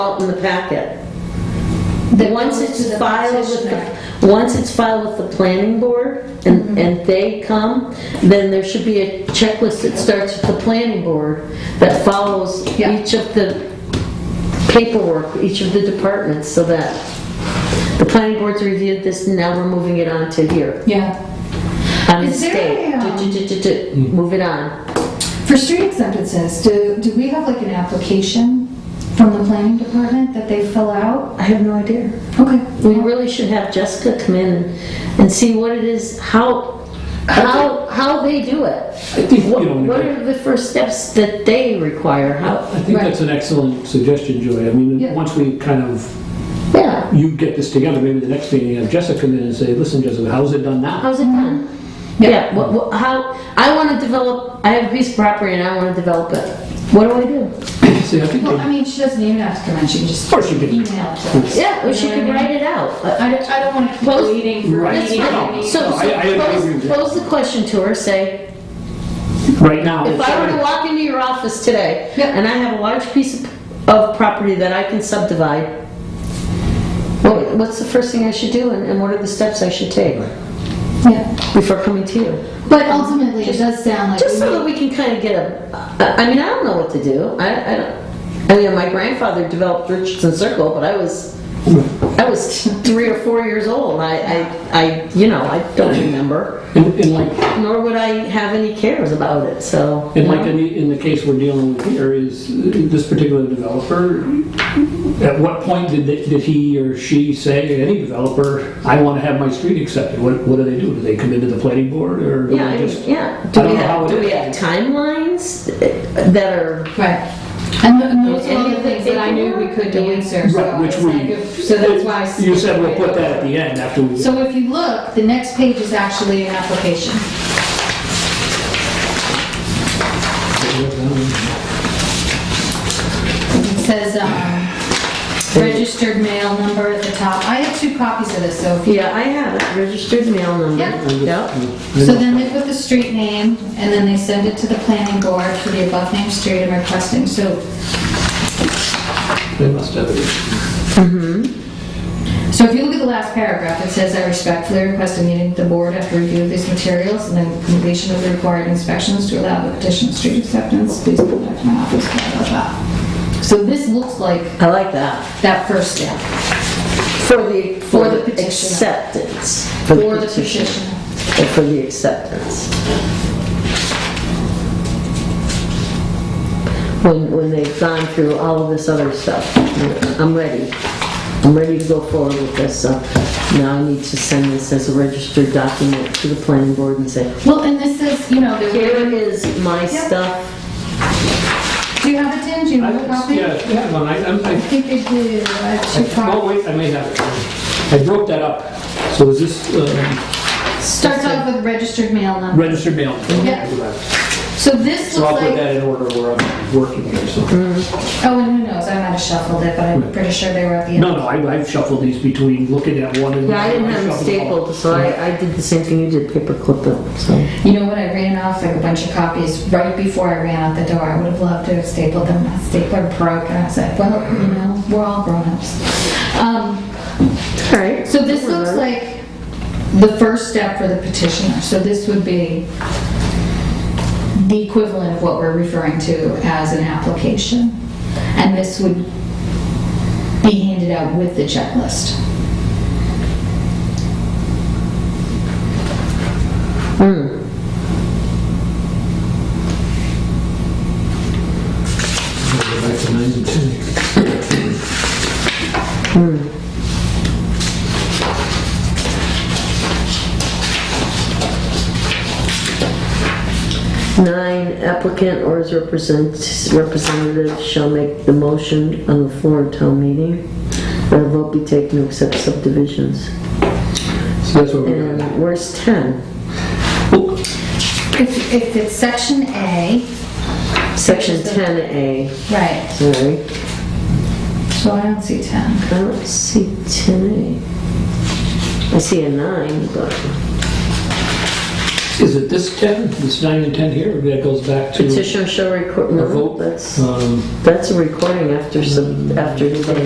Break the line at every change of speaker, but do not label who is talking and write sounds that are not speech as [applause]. out in the packet.
That
Once
goes to
it's
the
filed with
petitioner.
the,
Mm-hmm.
once it's filed with the planning board and, and they come, then there should be a checklist that starts with the planning board that follows
Yeah.
each of the paperwork, each of the departments, so that the planning board's reviewed this, now we're moving it on to here.
Yeah.
On the
Is there
state,
a, um,
Du-du-du-du-du. move it on.
For street acceptances, do, do we have like an application from the planning department that they fill out?
I have no idea.
Okay.
We really should have Jessica come in and- and see what it is, how, how, how they do it.
I think, you
What
know,
what
Nicole,
are the first steps that they require? How,
I think
Right.
that's an excellent suggestion, Joy. I mean,
Yeah.
once we kind of,
yeah,
you get this together, maybe the next meeting, have Jessica come in and say, listen, Jessica, how's it done now?
[laughs] how's it done?
Yeah.
Yeah, what, what, how, I wanna develop, I have a piece of property and I wanna develop it. What do I do?
See, I think,
Well, I
they-
mean, she doesn't even have to come in, she can just
Of course she can.
email it to us.
Yeah, or she
You know
could
what I mean?
write it out. Uh,
I don't, I don't want to keep
Well,
waiting for a
Right.
That's
meeting.
fine. So,
No, I- I
so
agree with
pose,
you.
pose the question to her, say,
right now,
If I were to
sorry.
walk into your office today,
Yeah.
and I have a large piece of, of property that I can subdivide, what, what's the first thing I should do, and, and what are the steps I should take
Yeah,
before coming to you?
but ultimately, it does sound like.
Just
we
so
need-
that we can kind of get a, I I mean, I don't know what to do, I, I don't, I mean, my grandfather developed Richardson Circle, but I was, I was [laughs] three or four years old, and I, I, I, you know, I don't remember,
And and like,
nor would I have any cares about it, so.
and like in the, in the case we're dealing with here is uh, this particular developer, at what point did, they- did he or she say, any developer, I want to have my street accepted? What, what do they do? Do they come into the planning board or do
Yeah, I
they
mean,
just?
yeah.
I
Do we
don't know how
have,
it
do we
is.
have timelines that are,
Right. And th- and those are all
Any
the
of the
things that I knew we could answer,
Right,
so
which
it's
we-
like, if- so that's why. I
You said we'll put that at the end after we.
So if you look, the next page is actually an application. It says, um, registered mail number at the top. I have two copies of this, so if you.
yeah, I have it, registered mail number.
Yeah.
Yep.
So then they put the street name, and then they send it to the planning board for the above-named street and requesting, so,
They must have it.
Mm-hmm. so if you look at the last paragraph, it says, "I respectfully request a meeting with the board after review of these materials and then completion of the required inspections to allow the petition of street acceptance, please come back to my office." blah, blah, blah." So this looks like
I like that.
that first step,
For the, for
For the
the
petitioner.
acceptance.
for the petition.
Or For the acceptance. When, when they've gone through all of this other stuff, I'm ready. I'm ready to go forward with this, so now I need to send this as a registered document to the planning board and say,
Well, and this is, you know, there-
here is my stuff.
do you have it, Tim? Do you have a copy?
Yeah, if you have one, I, I'm-
I
I,
think they do, I have two
oh,
copies.
wait, I may have it. I broke that up. So is this um,
Starts off with registered mail number.
registered mail?
Yeah. So this
So I'll
looks
put
like,
that in order where I'm working here, so.
oh, and who knows, I might have shuffled it, but I'm pretty sure they were at the end.
No, no, I- I've shuffled these between looking at one and.
Yeah, I didn't have them
shuffled them all.
stapled, so I, I did the same thing you did, paperclip them, so.
You know what, I ran off like a bunch of copies right before I ran out the door. I would have loved to have stapled them, my stapler broke, and I said, well, you know, we're all grown-ups. Um,
Alright.
So this looks like the first step for the petitioner, so this would be the equivalent of what we're referring to as an application. And this would be handed out with the checklist.
Go back to nine and ten.
Nine applicant or his represent- representative shall make the motion on the floor of town meeting. That a vote be taken to accept subdivisions.
So that's what we're doing.
And where's ten?
If, if it's section A,
Section ten A,
right,
sorry.
so I don't see 10.
I don't see ten A. I see a nine, but
Is it this 10, this 9 and 10 here, or that goes back to
Petition shall record,
a
no,
vote?
that's,
Um,
that's a recording after, sub- after the